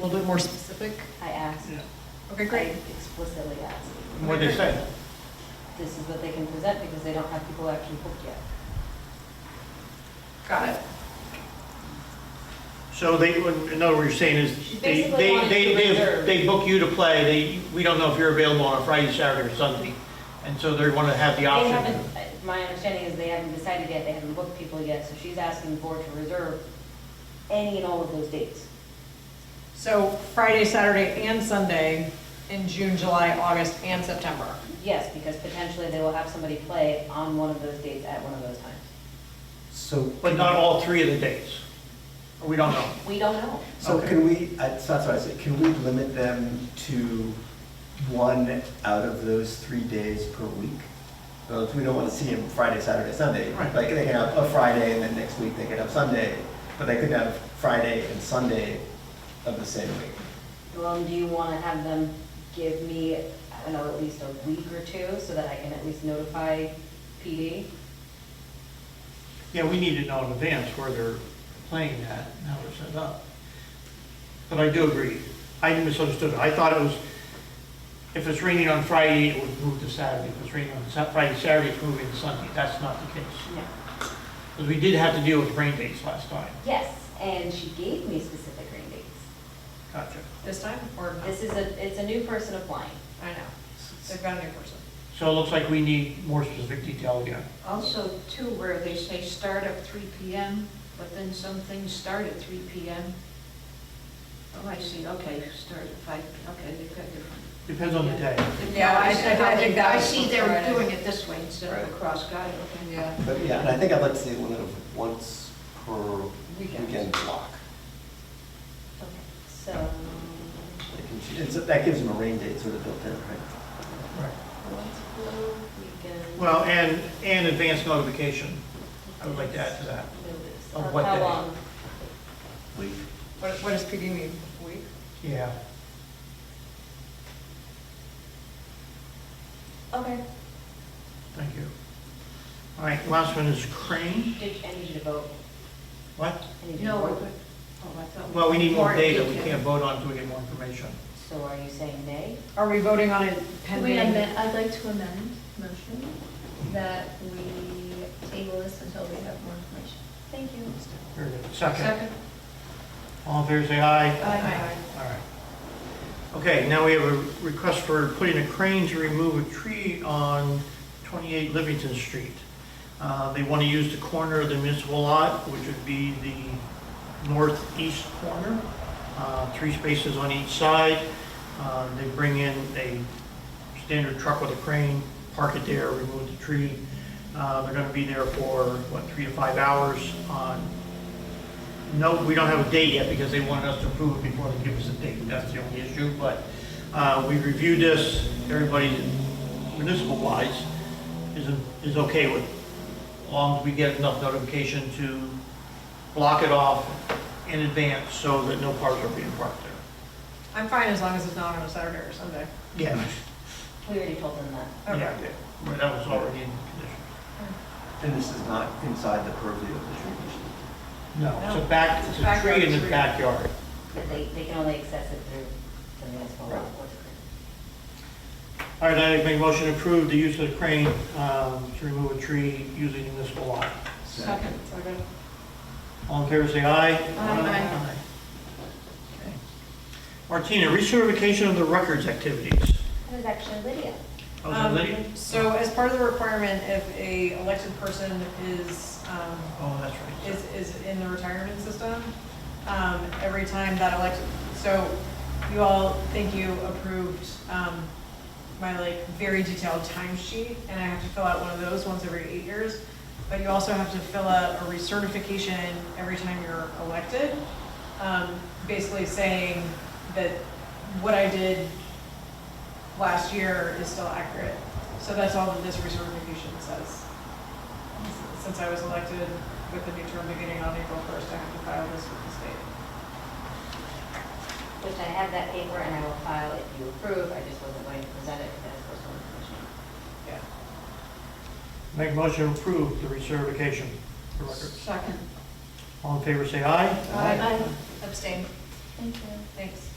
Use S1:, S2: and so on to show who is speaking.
S1: little bit more specific?
S2: I asked,
S1: Okay,
S2: I
S1: great.
S2: explicitly asked,
S3: What'd they say?
S2: this is what they can present because they don't have people actually booked yet.
S1: Got it.
S3: So they, in other words, you're saying
S2: She
S3: is, they,
S2: basically
S3: they,
S2: wanted
S3: they,
S2: to
S3: they
S2: reserve.
S3: they book you to play, they, we don't know if you're available on a Friday, Saturday, or Sunday, and so they want to have the
S2: They
S3: option.
S2: haven't, I- my understanding is they haven't decided yet, they haven't booked people yet, so she's asking the board to reserve any and all of those dates.
S1: So Friday, Saturday, and Sunday in June, July, August, and September.
S2: Yes, because potentially they will have somebody play on one of those dates at one of those times.
S4: So,
S3: But not all three of the days. We don't know.
S2: We don't know.
S4: so
S3: okay.
S4: can we, I- so that's what I said, can we limit them to one out of those three days per week? Well, if we don't want to see them Friday, Saturday, Sunday.
S3: Right.
S4: Like, they can have a Friday, and then next week they could have Sunday, but they could have Friday and Sunday of the same week.
S2: Well, do you want to have them give me, I don't know, at least a week or two so that I can at least notify PD?
S3: Yeah, we need to know in advance where they're playing that, and how they're set up. But I do agree. I misunderstood. it. I thought it was, if it's raining on Friday, it would move to Saturday. If it's raining on Sa- Friday, Saturday, it's moving to Sunday. That's not the case.
S2: No.
S3: Because we did have to deal with rain dates last time.
S2: Yes, and she gave me specific rain dates.
S3: Gotcha.
S1: This time, or not?
S2: This is a, it's a new person applying.
S1: I know. They've got a new person.
S3: So it looks like we need more specific detail again.
S5: Also, too, where they say start at three PM, but then some things start at three PM. Oh, I see, okay, start at five, okay, they've got different.
S3: Depends on the day.
S1: Yeah, I- I- I
S5: see how
S1: think
S5: they-
S1: that
S5: I
S1: was
S5: see
S1: for
S5: they're
S1: Friday.
S5: doing it this way instead of
S1: Right.
S5: across, got it, okay.
S1: Yeah.
S4: But yeah, and I think I'd like to see a limit of once per
S5: Weekend.
S4: weekend block.
S2: So,
S4: Like, and she- and so That gives them a rain date sort of built in, right?
S3: Right.
S2: once per weekend.
S3: Well, and, and advance notification. I would like to add to that.
S2: Notice.
S3: Of
S2: Of
S3: what
S2: How
S3: day?
S2: long?
S4: Week.
S1: What, what does PD mean, week?
S3: Yeah.
S2: Okay.
S3: Thank you. All right, last one is Crane.
S2: Did, I need you to vote.
S3: What?
S2: I need you to
S5: No,
S2: vote.
S5: but- oh, I thought.
S3: Well, we need more data, we
S5: detail.
S3: can't vote on until we get more information.
S2: So are you saying nay?
S1: Are we voting on it
S6: Can we
S1: pending?
S6: amend, I'd like to amend motion that we table this until we have more information.
S2: Thank you.
S3: Very good. Second,
S5: Second?
S3: all in favor, say aye.
S1: Aye.
S3: All right. Okay, now we have a request for putting a crane to remove a tree on 28 Livingston Street. Uh, They want to use the corner of the municipal lot, which would be the northeast corner, uh, three spaces on each side. Uh, They bring in a standard truck with a crane, park it there, remove the tree. Uh, They're going to be there for, what, three to five hours on no, we don't have a date yet because they wanted us to approve it before they give us a date. That's the only issue, but uh, we reviewed this, everybody municipal wise is, is okay with, as long as we get enough notification to block it off in advance so that no cars are being parked there.
S1: I'm fine as long as it's not on a Saturday or Sunday.
S3: Yeah.
S2: We already told them that.
S1: Okay.
S3: Yeah, Well, that was already in condition.
S4: And this is not inside the purview of the tree commission.
S3: No, it's a back, it's a tree in the backyard.
S2: But they, they can only access it through the municipal lot or the grid.
S3: All right, I make a motion to approve the use of the crane um, to remove a tree using municipal lot.
S5: Second.
S3: All in favor, say aye.
S5: Aye.
S3: Okay. Martina, recertification of the records activities.
S2: That was actually Lydia.
S3: Oh, is that
S1: Um,
S3: Lydia?
S1: So as part of the requirement, if a elected person is, um,
S3: Oh, that's right.
S1: is, is in the retirement system, um, every time that election, so you all think you approved, um, my like very detailed timesheet, and I have to fill out one of those once every eight years. But you also have to fill out a recertification every time you're elected, um, basically saying that what I did last year is still accurate. So that's all that this recertification says. Since I was elected with the new term beginning on April 1st, I have to file this with the state.
S2: Which I have that paper and I will file if you approve, I just wasn't going to present it because it's personal information.
S1: Yeah.
S3: Make a motion to approve the recertification of the records.
S5: Second.
S3: All in favor, say aye.
S1: Abstain.
S6: Thank you.
S1: Thanks.